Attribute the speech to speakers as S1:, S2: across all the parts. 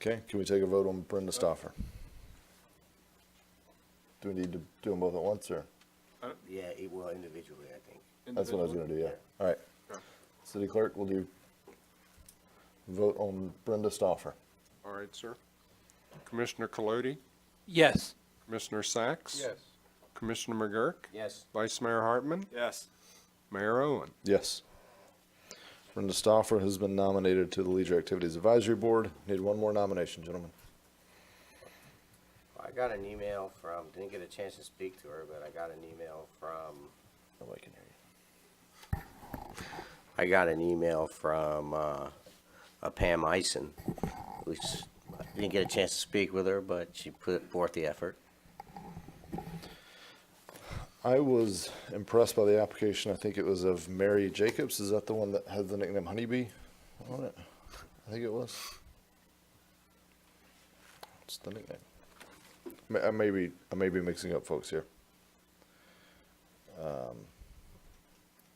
S1: Okay, can we take a vote on Brenda Stoffer? Do we need to do them both at once, or?
S2: Yeah, it will individually, I think.
S1: That's what I was gonna do, yeah. All right.
S3: Okay.
S1: City clerk, will you vote on Brenda Stoffer?
S3: All right, sir. Commissioner Colodi,
S4: Yes.
S3: Commissioner Sacks? Commissioner McGurk?
S2: Yes.
S3: Vice Mayor Hartman?
S5: Yes.
S3: Mayor Owen?
S1: Yes. Brenda Stoffer has been nominated to the Leisure Activities Advisory Board. Need one more nomination, gentlemen.
S2: I got an email from, didn't get a chance to speak to her, but I got an email from,
S1: Nobody can hear you.
S2: I got an email from, uh, uh, Pam Ison, which I didn't get a chance to speak with her, but she put forth the effort.
S1: I was impressed by the application. I think it was of Mary Jacobs. Is that the one that had the nickname Honeybee on it? I think it was. It's the nickname. May- I may be, I may be mixing up folks here. Um,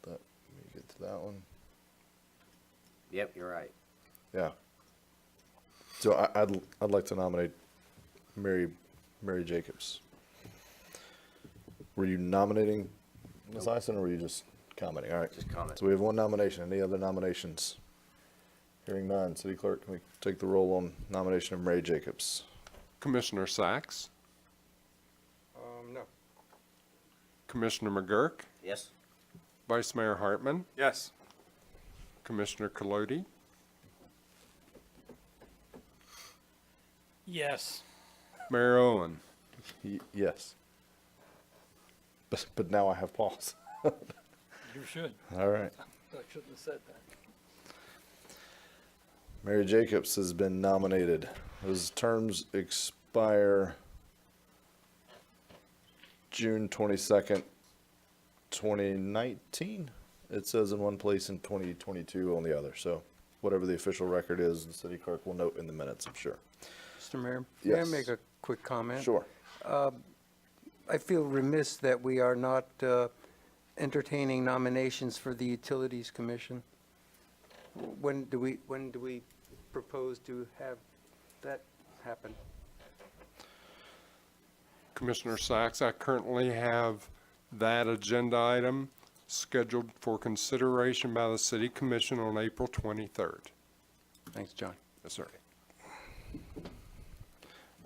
S1: Let me get to that one.
S2: Yep, you're right.
S1: Yeah. So I, I'd, I'd like to nominate Mary, Mary Jacobs. Were you nominating Ms. Ison, or were you just commenting? All right.
S2: Just comment.
S1: So we have one nomination. Any other nominations? Hearing none. City Clerk, can we take the roll on nomination of Mary Jacobs?
S3: Commissioner Sacks?
S5: Um, no.
S3: Commissioner McGurk?
S2: Yes?
S3: Vice Mayor Hartman?
S5: Yes.
S3: Commissioner Colodi,
S4: Yes.
S3: Mayor Owen?
S1: Y- yes. But, but now I have pause.
S4: You should.
S1: All right.
S4: I shouldn't have said that.
S1: Mary Jacobs has been nominated. Those terms expire June twenty-second, twenty nineteen. It says in one place and twenty twenty-two on the other, so whatever the official record is, the city clerk will note in the minutes, I'm sure.
S6: Mr. Mayor, may I
S1: Yes.
S6: make a quick comment?
S1: Sure.
S6: I feel remiss that we are not uh, entertaining nominations for the Utilities Commission. When do we, when do we propose to have that happen?
S3: Commissioner Sacks, I currently have that agenda item scheduled for consideration by the City Commission on April 23rd.
S6: Thanks, John.
S3: Yes, sir.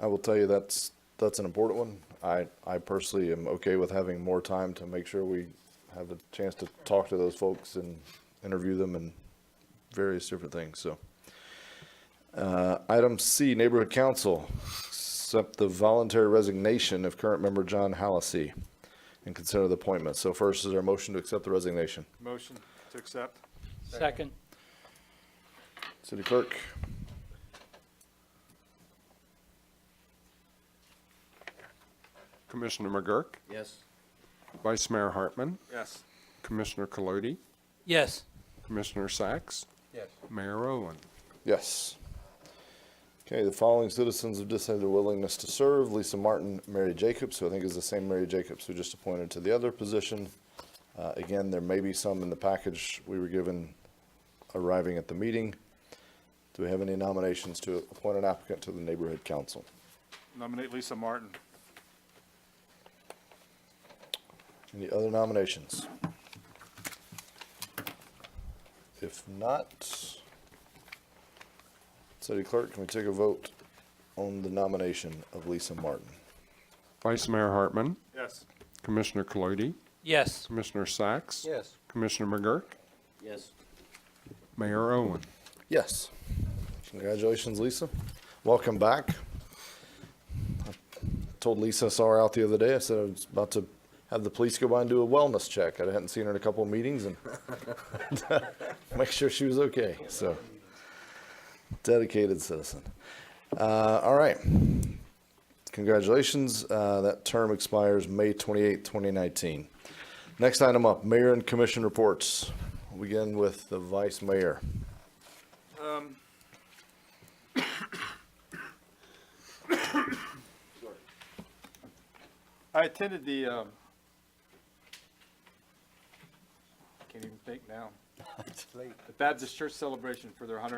S1: I will tell you that's, that's an important one. I, I personally am okay with having more time to make sure we have a chance to talk to those folks and interview them and various different things, so. Uh, item C, Neighborhood Council, accept the voluntary resignation of current member John Hallacy and consider the appointment. So first is our motion to accept the resignation.
S5: Motion to accept?
S4: Second.
S1: City Clerk?
S3: Commissioner McGurk,
S2: Yes.
S3: Vice Mayor Hartman,
S5: Yes.
S3: Commissioner Colodi,
S4: Yes.
S3: Commissioner Sacks,
S6: Yes.
S3: Mayor Owen.
S1: Yes. Okay, the following citizens have decided their willingness to serve, Lisa Martin, Mary Jacobs, who I think is the same Mary Jacobs who just appointed to the other position. Uh, again, there may be some in the package we were given arriving at the meeting. Do we have any nominations to appoint an applicant to the neighborhood council?
S5: Nominate Lisa Martin.
S1: Any other nominations? If not, City Clerk, can we take a vote on the nomination of Lisa Martin?
S3: Vice Mayor Hartman,
S5: Yes.
S3: Commissioner Colodi,
S4: Yes.
S3: Commissioner Sacks,
S6: Yes.
S3: Commissioner McGurk,
S2: Yes.
S3: Mayor Owen.
S1: Yes. Congratulations, Lisa. Welcome back. I Told Lisa I saw her out the other day. I said I was about to have the police go by and do a wellness check. I hadn't seen her in a couple of meetings and make sure she was okay. So dedicated citizen. Uh, all right. Congratulations. Uh, that term expires May 28, 2019. Next item up, mayor and commission reports. We'll begin with the vice mayor.
S5: I attended the, um, can't even think now. The Baptist Church celebration for their 100